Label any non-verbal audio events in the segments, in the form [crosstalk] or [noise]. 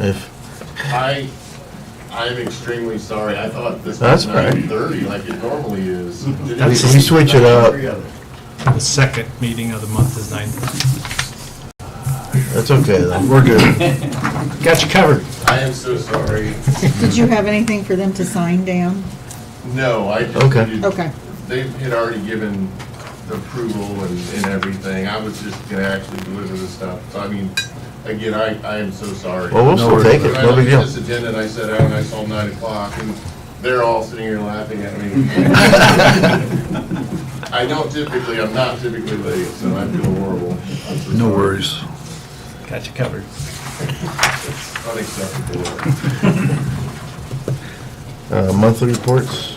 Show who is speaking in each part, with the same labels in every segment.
Speaker 1: If,
Speaker 2: I, I'm extremely sorry, I thought this
Speaker 1: That's
Speaker 2: was
Speaker 1: all right.
Speaker 2: nine thirty like it normally is.
Speaker 1: That's- we switch it up.
Speaker 3: The second meeting of the month is nine.
Speaker 1: that's okay then.
Speaker 3: We're good. Got you covered.
Speaker 2: I am so sorry.
Speaker 4: Did you have anything for them to sign, Dan?
Speaker 2: No, I just.
Speaker 1: Okay.
Speaker 2: needed-
Speaker 4: Okay.
Speaker 2: They had already given the approval and, and everything, I was just gonna actually deliver the stuff, so I mean, again, I, I am so sorry.
Speaker 1: Well, we'll still take it,
Speaker 2: When I
Speaker 1: no
Speaker 2: looked
Speaker 1: big
Speaker 2: at
Speaker 1: deal.
Speaker 2: this agenda and I sat down and I saw nine o'clock and they're all sitting here laughing at me.
Speaker 1: [laughs]
Speaker 2: I don't typically, I'm not typically late, so I feel horrible. I'm so
Speaker 5: No
Speaker 2: sorry.
Speaker 5: worries.
Speaker 3: Got you covered.
Speaker 2: Unacceptable.
Speaker 1: Uh, Monthly reports,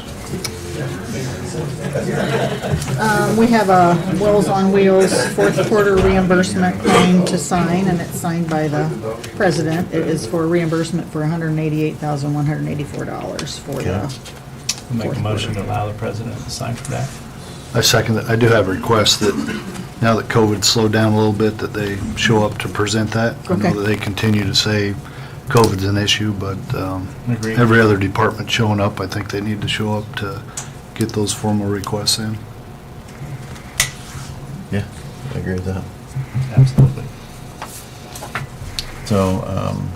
Speaker 4: Um, We have a Wells on Wheels fourth quarter reimbursement claim to sign, and it's signed by the president. It is for reimbursement for $188,184 for the,
Speaker 3: We'll Make a motion to allow the president to sign for that.
Speaker 5: I second that. I do have a request that now that COVID slowed down a little bit, that they show up to present that. I know
Speaker 4: Okay.
Speaker 5: that they continue to say COVID's an issue, but um,
Speaker 3: Agreed.
Speaker 5: every other department showing up, I think they need to show up to get those formal requests in.
Speaker 1: yeah, I agree with that.
Speaker 3: Absolutely.
Speaker 1: So, um,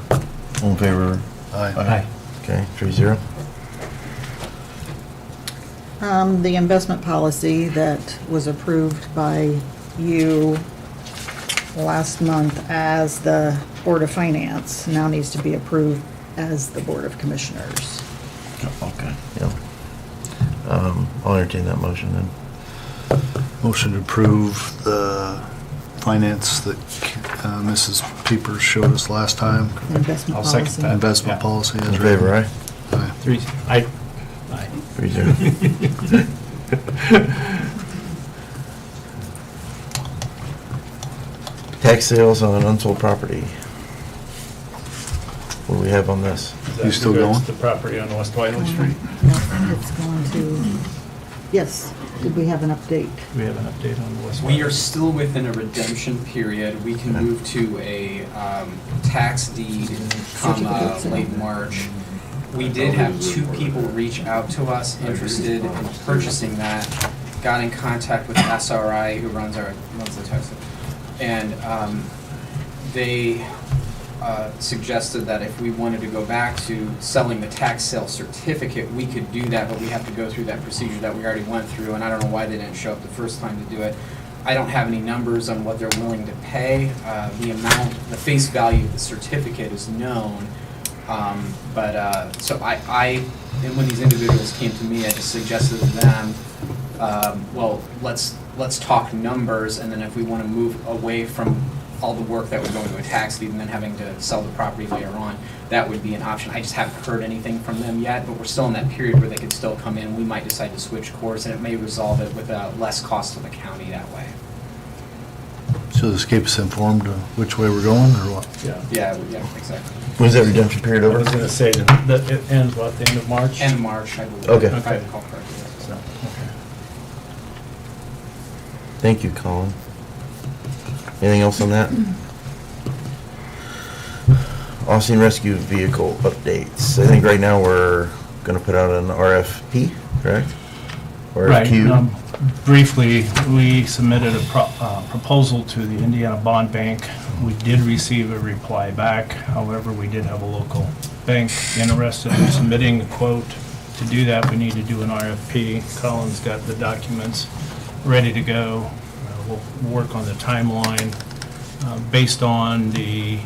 Speaker 1: all in favor?
Speaker 5: Aye.
Speaker 3: Aye.
Speaker 1: Okay, three zero.
Speaker 4: um, the investment policy that was approved by you last month as the Board of Finance now needs to be approved as the Board of Commissioners.
Speaker 3: Oh,
Speaker 1: Okay. Yep. Um, I'll entertain that motion then.
Speaker 5: Motion to approve the finance that uh, Mrs. Peepers showed us last time,
Speaker 4: Investment
Speaker 3: I'll second
Speaker 4: policy.
Speaker 3: that.
Speaker 5: investment
Speaker 3: Yeah.
Speaker 5: policy. as
Speaker 1: In favor, aye?
Speaker 5: written. Aye.
Speaker 3: Three, aye. Aye.
Speaker 1: Three zero. Tax sales on unsold property. What do we have on this?
Speaker 5: You still
Speaker 3: That's
Speaker 5: going? Mm-hmm.
Speaker 3: The property on West Wiley Street.
Speaker 4: No, It's going to, yes, did we have an update?
Speaker 3: Do we have an update on West Wiley?
Speaker 6: We are still within a redemption period. We can move to a um, tax deed come uh, late March. We did have two people reach out to us interested in purchasing that. Got in contact with SRI, who runs our, runs the tax. And um, they uh, suggested that if we wanted to go back to selling the tax sale certificate, we could do that, but we have to go through that procedure that we already went through, and I don't know why they didn't show up the first time to do it. I don't have any numbers on what they're willing to pay. Uh, The amount, the face value of the certificate is known, um, but, uh, so I, I, and when these individuals came to me, I just suggested to them, um, well, let's, let's talk numbers, and then if we want to move away from all the work that would go into a tax deed and then having to sell the property later on, that would be an option. I just haven't heard anything from them yet, but we're still in that period where they could still come in. We might decide to switch course, and it may resolve it with uh, less cost to the county that way.
Speaker 5: So this keeps us informed of which way we're going or what?
Speaker 3: Yeah.
Speaker 6: Yeah, yeah, exactly.
Speaker 1: When's that redemption period
Speaker 3: I
Speaker 1: over?
Speaker 3: was gonna say that that it ends, what, the end of March?
Speaker 6: And March, I believe.
Speaker 1: Okay.
Speaker 6: If I recall correctly.
Speaker 3: So, okay.
Speaker 1: Thank you, Colin. Anything else on that? Austin Rescue Vehicle updates. I think right now we're gonna put out an RFP, correct? Or
Speaker 3: Right.
Speaker 1: RFQ.
Speaker 3: um, Briefly, we submitted a pro- uh, proposal to the Indiana Bond Bank. We did receive a reply back. However, we did have a local bank interested in submitting the quote. To do that, we need to do an RFP. Colin's got the documents ready to go. Uh, We'll work on the timeline uh, based on the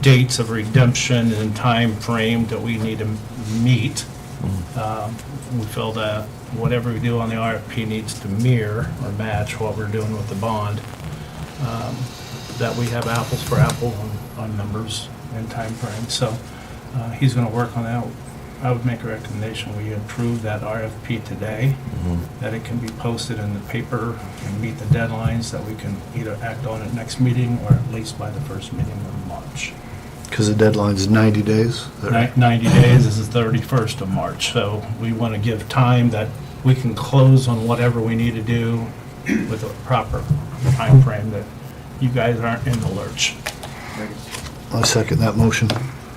Speaker 3: dates of redemption and time frame that we need to m- meet. Um, We feel that whatever we do on the RFP needs to mirror or match what we're doing with the bond, um, that we have apples for apple on- on numbers and timeframe. So uh, he's going to work on that. I would make a recommendation, we approve that RFP today,
Speaker 1: Mhm.
Speaker 3: that it can be posted in the paper and meet the deadlines, that we can either act on it next meeting or at least by the first meeting of March.
Speaker 5: Because the deadline's 90 days.
Speaker 3: Ni- 90 days is the 31st of March, so we want to give time that we can close on whatever we need to do with a proper timeframe, that you guys aren't in the lurch.
Speaker 5: I second that motion.